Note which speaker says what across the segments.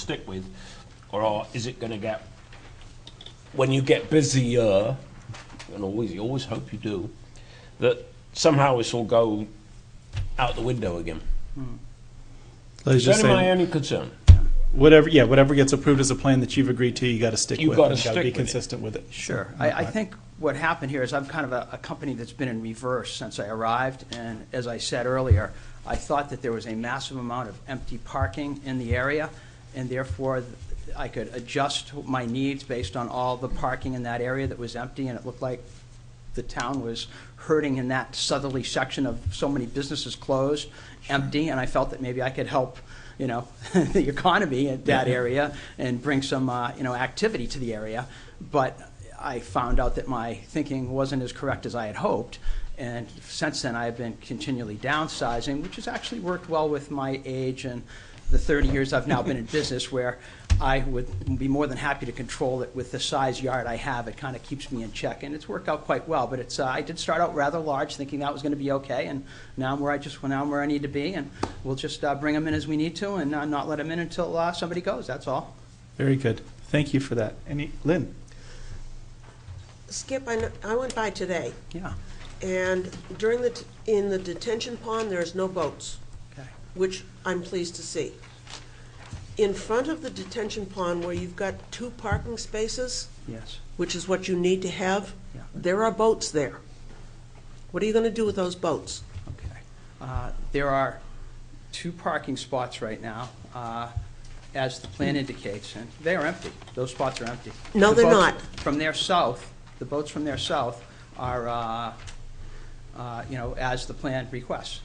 Speaker 1: stick with? Or is it gonna get, when you get busier, and always, you always hope you do, that somehow this will go out the window again?
Speaker 2: I was just
Speaker 1: That's my
Speaker 2: saying,
Speaker 1: only concern.
Speaker 2: whatever, yeah, whatever gets approved as a plan that you've agreed to, you got to stick with.
Speaker 1: You gotta
Speaker 2: and
Speaker 1: stick
Speaker 2: Be
Speaker 1: with it.
Speaker 2: consistent with it. Mm-hmm.
Speaker 3: Sure. I, I think what happened here is I'm kind of a, a company that's been in reverse since I arrived, and as I said earlier, I thought that there was a massive amount of empty parking in the area, and therefore I could adjust my needs based on all the parking in that area that was empty, and it looked like the town was hurting in that southerly section of so many businesses closed, empty, and I felt that maybe I could help, you know, the economy at that area and bring some, uh, you know, activity to the area. But I found out that my thinking wasn't as correct as I had hoped. And since then, I've been continually downsizing, which has actually worked well with my age and the 30 years I've now been in business where I would be more than happy to control it with the size yard I have. It kind of keeps me in check, and it's worked out quite well. But it's, uh, I did start out rather large, thinking that was going to be okay, and now I'm where I just, well, now I'm where I need to be, and we'll just uh, bring them in as we need to and uh, not let them in until uh, somebody goes, that's all.
Speaker 2: Very good. Thank you for that. Any, Lynn?
Speaker 4: Skip, I, kn- I went by today,
Speaker 3: Yeah,
Speaker 4: and during the, t- in the detention pond, there's no boats,
Speaker 3: okay.
Speaker 4: which I'm pleased to see. In front of the detention pond where you've got two parking spaces,
Speaker 3: Yes,
Speaker 4: which is what you need to have,
Speaker 3: Yeah.
Speaker 4: there are boats there. What are you gonna do with those boats?
Speaker 3: okay. Uh, There are two parking spots right now, uh, as the plan indicates, and they are empty. Those spots are empty.
Speaker 4: No,
Speaker 3: The
Speaker 4: they're
Speaker 3: boats
Speaker 4: not.
Speaker 3: From their south, the boats from their south are, uh, uh, you know, as the plan requests.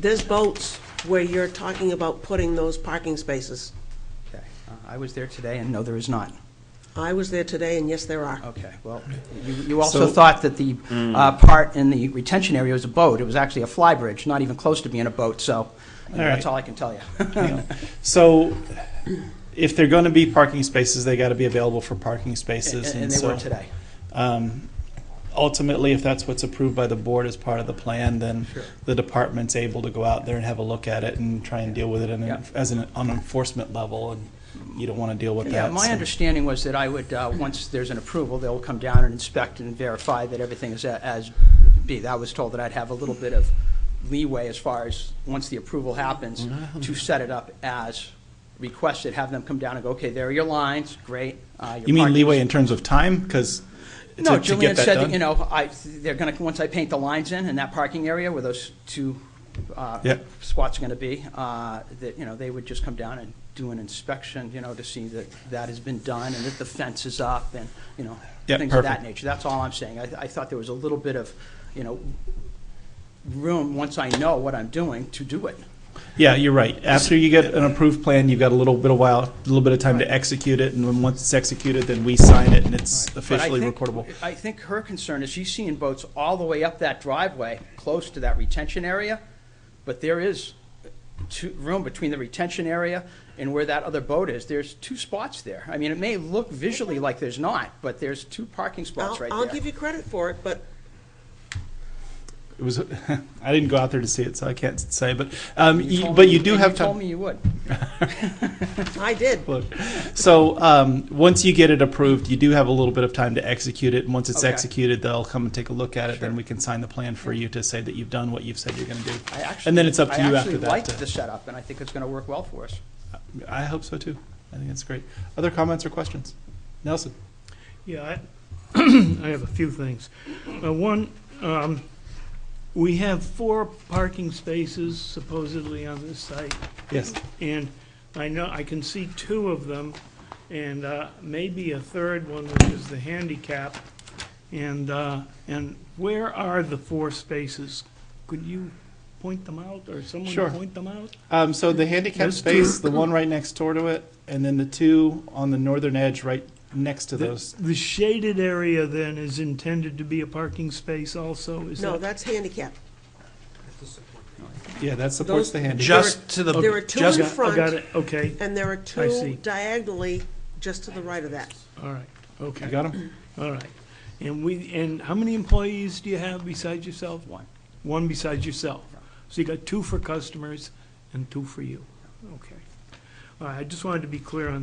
Speaker 4: There's boats where you're talking about putting those parking spaces.
Speaker 3: Okay, Uh, I was there today, and no, there is not.
Speaker 4: I was there today, and yes, there are.
Speaker 3: Okay, well, you- you also
Speaker 2: So- Hmm.
Speaker 3: thought that the uh, part in the retention area was a boat. It was actually a fly bridge, not even close to being a boat, so you know,
Speaker 2: All right.
Speaker 3: that's all I can tell you.
Speaker 2: So if they're going to be parking spaces, they got to be available for parking spaces.
Speaker 3: And- And they
Speaker 2: so,
Speaker 3: were today.
Speaker 2: um, Ultimately, if that's what's approved by the board as part of the plan, then
Speaker 3: Sure.
Speaker 2: the department's able to go out there and have a look at it and try and deal with it in
Speaker 3: Yeah.
Speaker 2: an- as an on enforcement level, and you don't want to deal with that.
Speaker 3: Yeah, my
Speaker 2: so-
Speaker 3: understanding was that I would, uh, once there's an approval, they'll come down and inspect and verify that everything is a- as be. I was told that I'd have a little bit of leeway as far as, once the approval happens, to set it up as requested, have them come down and go, okay, there are your lines, great. uh, your
Speaker 2: You mean
Speaker 3: parking
Speaker 2: leeway in terms of time? Because
Speaker 3: No,
Speaker 2: to, to
Speaker 3: Julian
Speaker 2: get that
Speaker 3: said, that,
Speaker 2: done?
Speaker 3: you know, I, they're gonna, once I paint the lines in, in that parking area where those two, uh,
Speaker 2: Yeah.
Speaker 3: spots are gonna be, uh, that, you know, they would just come down and do an inspection, you know, to see that that has been done and that the fence is up and, you know,
Speaker 2: Yeah,
Speaker 3: things of that
Speaker 2: perfect.
Speaker 3: nature. That's all I'm saying. I, I thought there was a little bit of, you know, room, once I know what I'm doing, to do it.
Speaker 2: Yeah, you're right. After you get an approved plan, you've got a little bit of while, a little bit of time to execute it, and then once it's executed, then we sign it, and it's
Speaker 3: But I
Speaker 2: officially
Speaker 3: think-
Speaker 2: recordable.
Speaker 3: I think her concern is she's seeing boats all the way up that driveway, close to that retention area, but there is two, room between the retention area and where that other boat is. There's two spots there. I mean, it may look visually like there's not, but there's two parking
Speaker 4: I'll,
Speaker 3: spots right there.
Speaker 4: I'll give you credit for it, but
Speaker 2: It was, I didn't go out there to see it, so I can't say, but, um,
Speaker 3: You
Speaker 2: you-
Speaker 3: told
Speaker 2: but
Speaker 3: me-
Speaker 2: you do
Speaker 3: and
Speaker 2: have
Speaker 3: You told
Speaker 2: time.
Speaker 3: me you would.
Speaker 4: I did.
Speaker 2: Look, So, um, once you get it approved, you do have a little bit of time to execute it, and once it's
Speaker 3: Okay.
Speaker 2: executed, they'll come and take a look at it, then
Speaker 3: Sure.
Speaker 2: we can sign the plan for you to say that you've done what you've said you're gonna do.
Speaker 3: I actually.
Speaker 2: And then it's up to
Speaker 3: I
Speaker 2: you
Speaker 3: actually
Speaker 2: after that.
Speaker 3: liked
Speaker 2: to-
Speaker 3: the setup, and I think it's gonna work well for us.
Speaker 2: I hope so too. I think that's great. Other comments or questions? Nelson?
Speaker 5: Yeah, I, I have a few things. Uh, one, um, we have four parking spaces supposedly on this site,
Speaker 2: Yes.
Speaker 5: and I know, I can see two of them, and, uh, maybe a third one, which is the handicap. And, uh, and where are the four spaces? Could you point them out, or someone
Speaker 2: Sure.
Speaker 5: point them out?
Speaker 2: Um, so the handicap
Speaker 5: Those
Speaker 2: space, the one right next door to it, and then the two on the northern edge right next to
Speaker 5: The-
Speaker 2: those.
Speaker 5: The shaded area then is intended to be a parking space also, is that?
Speaker 4: No, that's handicap.
Speaker 2: Yeah, that supports
Speaker 4: Those-
Speaker 2: the handicap.
Speaker 6: Just to the,
Speaker 4: There are two
Speaker 6: just
Speaker 4: in
Speaker 5: Got- I
Speaker 4: front.
Speaker 5: got it, okay.
Speaker 4: And there are
Speaker 5: I
Speaker 4: two
Speaker 5: see.
Speaker 4: diagonally just to the right of that.
Speaker 5: All right,
Speaker 2: You
Speaker 5: okay,
Speaker 2: got 'em?
Speaker 5: all right. And we, and how many employees do you have besides yourself?
Speaker 3: One.
Speaker 5: One besides yourself. So you got two for customers and two for you. Okay. All right, I just wanted to be clear on